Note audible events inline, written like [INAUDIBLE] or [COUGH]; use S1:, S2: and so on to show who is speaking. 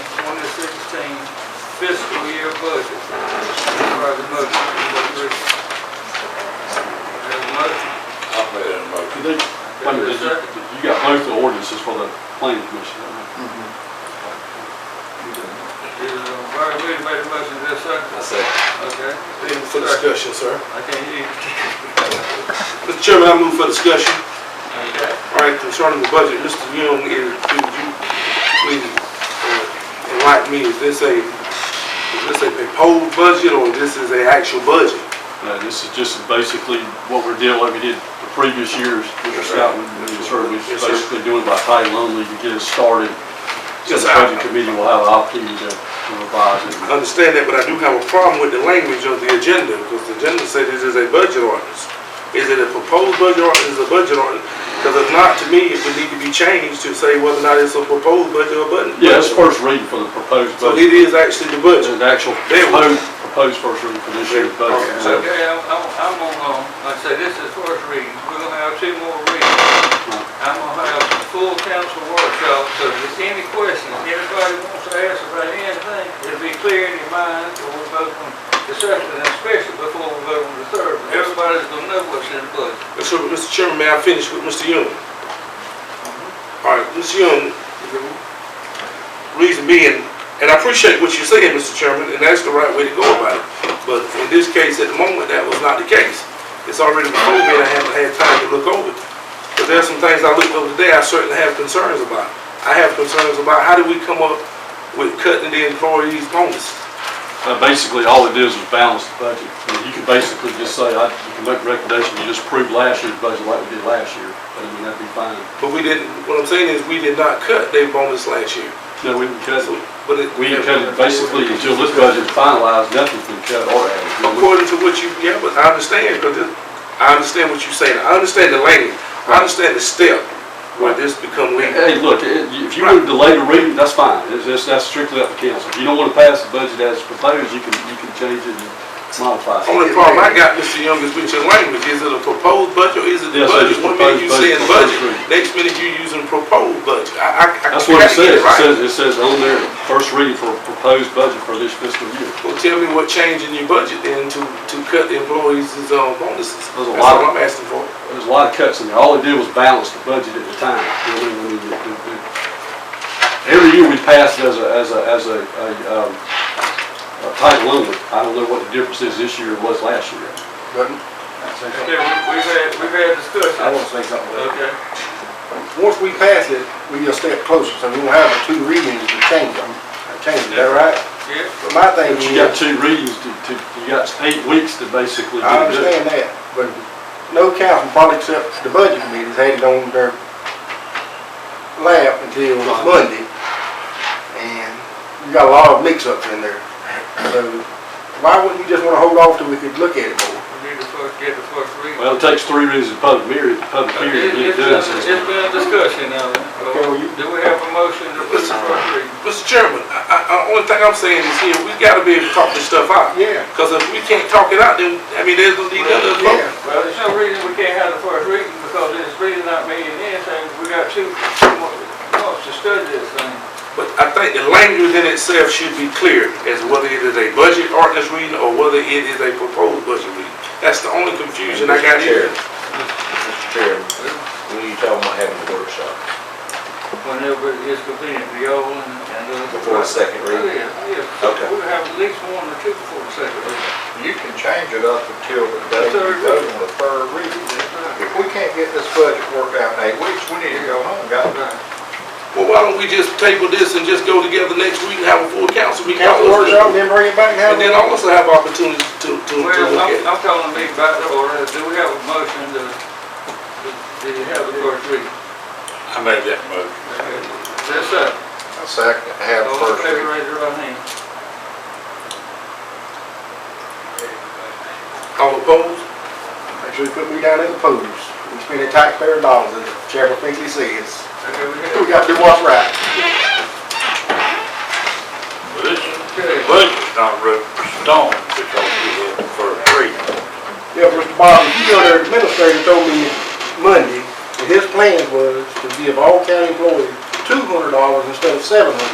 S1: fiscal year budget. Requires a motion. Have a motion?
S2: I'll put it in a motion.
S3: You think- wait a minute, you you got both the ordinances for the planning commission, right?
S4: Mm-hmm.
S1: Is, uh, Barry Williams made a motion, is that second?
S2: I say,
S1: Okay.
S4: Move for discussion, sir.
S1: I can't hear you. [LAUGHS]
S4: Mr. Chairman, I move for discussion.
S1: Okay.
S4: All right, concerning the budget, Mr. Young, is- could you please uh, enlighten me, is this a, is this a proposed budget or this is a actual budget?
S3: Uh, this is just basically what we're dealing, like we did the previous years, Mr. Scott, when we was heard, we're
S4: Yes, sir.
S3: basically doing by title only to get us started. So
S4: Yes,
S3: the
S4: sir.
S3: budget committee will have an opportunity to to revise it.
S4: I understand that, but I do have a problem with the language of the agenda, because the agenda said this is a budget ordinance. Is it a proposed budget or is it a budget ordinance? Because if not, to me, it would need to be changed to say whether or not it's a proposed budget or budget.
S3: Yeah, it's first reading for the proposed
S4: So
S3: budget,
S4: it is actually the budget.
S3: It's an actual
S4: There we go.
S3: proposed, proposed first reading for this year's budget.
S4: Okay.
S3: So,
S1: Okay, I'm, I'm I'm gonna, um, like I say, this is first reading, we're gonna have two more readings. I'm gonna have a full council workshop, so if there's any questions, anybody wants to ask about anything, it'll be clear in your mind, or we vote on the second, and especially before we vote on the third. one. Everybody's gonna know what's in the budget.
S4: So, Mr. Chairman, may I finish with Mr. Young? All right, Mr. Young, reason being, and I appreciate what you're saying, Mr. Chairman, and that's the right way to go about it. But in this case, at the moment, that was not the case. It's already before me, and I haven't had time to look over it. But there's some things I looked over today, I certainly have concerns about. I have concerns about how do we come up with cutting the employees' bonus?
S3: uh, basically, all it is is balance the budget. And You can basically just say, I, you can make a recommendation, you just approve last year's budget like we did last year, but I mean, that'd be fine.
S4: But we didn't, what I'm saying is, we did not cut their bonus last year.
S3: No, we can cut
S4: So,
S3: it.
S4: But it.
S3: We can cut it basically until this budget's finalized, nothing's been cut or added.
S4: According to what you, yeah, but I understand, because I understand what you're saying, I understand the language, I understand the step where this become legal.
S3: Hey, look, it- if you want to delay the reading, that's fine. It's- That's, that's strictly up to council. If you don't want to pass the budget as proposed, you can, you can change it and modify it.
S4: Only problem I got, Mr. Young, is with your language, is it a proposed budget or is it the
S3: Yes, sir,
S4: budget?
S3: just
S4: One minute
S3: proposed
S4: you
S3: budget,
S4: saying
S3: proposed
S4: budget,
S3: budget.
S4: next minute you using proposed budget, I, I, I
S3: That's what it
S4: gotta get
S3: says.
S4: it
S3: It
S4: right.
S3: says, it says on there, first reading for proposed budget for this fiscal year.
S4: Well, tell me what change in your budget then to, to cut the employees' um, bonuses, that's
S3: There's a lot
S4: all
S3: of-
S4: I'm asking for.
S3: There's a lot of cuts in there. All it did was balance the budget at the time. You know, I mean, it- it- it- Every year we passed as a, as a, as a, a, um, a title only. I don't know what the difference is this year was last year.
S1: Okay, we- we've had, we've had discussion.
S5: I want to say something. about
S1: Okay.
S5: it. Once we pass it, we just step closer, so we won't have two readings to change them, change it, is that right?
S1: Yeah.
S5: But my thing
S3: But you got
S5: is,
S3: two readings to, to, you got eight weeks to basically do it.
S5: I understand that, but no council, probably except the budget committees, had it on their lap until
S3: Right.
S5: Monday. And you got a lot of mix-ups in there. So why wouldn't you just want to hold off till we could look at it more?
S1: We need to first get the first reading.
S3: Well, it takes three readings of public hearing, public
S1: Okay,
S3: hearing to
S1: it-
S3: get it
S1: It's
S3: done.
S1: been-
S3: so-
S1: it's been a discussion now.
S5: Okay, well, you-
S1: Do we have a motion to put the first reading?
S4: Mr. Chairman, I, I, I- only thing I'm saying is here, we gotta be able to talk this stuff out.
S5: Yeah.
S4: Because if we can't talk it out, then, I mean, there's no need to
S5: Yeah.
S4: vote.
S1: Well, there's no reason we can't have the first reading because it's really not meaning anything. We got two months to study this thing.
S4: But I think the language in itself should be clear as whether it is a budget ordinance reading or whether it is a proposed budget reading. That's the only confusion I got here.
S2: Mr. Chairman, when you talking about having a workshop,
S1: Whenever it's convenient for y'all and and us.
S2: before the second
S1: Oh,
S2: reading?
S1: yeah, yeah.
S2: Okay.
S1: We'll have at least one or two before the second reading.
S6: You can change it up until the day you vote on the third reading.
S1: That's right.
S6: If we can't get this budget worked out in eight weeks, we need to go home, guys.
S1: Right.
S4: Well, why don't we just table this and just go together next week and have a full council meeting?
S5: Council workshop, then bring it back and have
S4: And
S5: it.
S4: then also have opportunity to, to,
S1: Well,
S4: to look
S1: I'm,
S4: at. it.
S1: I'm calling me back to order. Do we have a motion to, to to have the first reading?
S2: I made that motion.
S1: That's it.
S6: A second, have a
S1: All in
S6: first
S1: favor,
S6: reading.
S1: raise your right hand.
S4: All opposed?
S5: Make sure you put me down as opposed. We spending taxpayer dollars, as Sheriff Pinkley says.
S1: Okay, we
S5: We
S1: have.
S5: got to do what's right.
S1: Okay.
S2: Budget's not wrote in stone because we did the first reading.
S5: Yeah, Mr. Bob, you know, their administrator told me Monday, that his plan was to give all county employees two hundred dollars instead of seven hundred